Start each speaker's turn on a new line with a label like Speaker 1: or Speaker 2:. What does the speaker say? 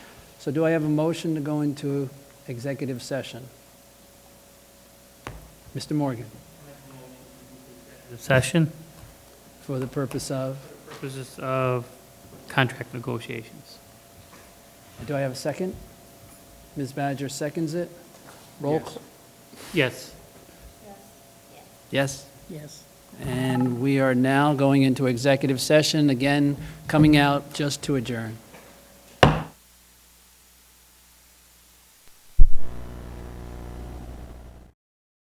Speaker 1: So do I have a motion to go into executive session? Mr. Morgan,
Speaker 2: The session,
Speaker 1: for the purpose of,
Speaker 2: purposes of contract negotiations.
Speaker 1: do I have a second? Ms. Badger seconds it? Roll
Speaker 2: Yes.
Speaker 1: call.
Speaker 2: Yes.
Speaker 1: Yes?
Speaker 2: Yes.
Speaker 1: And we are now going into executive session, again, coming out just to adjourn.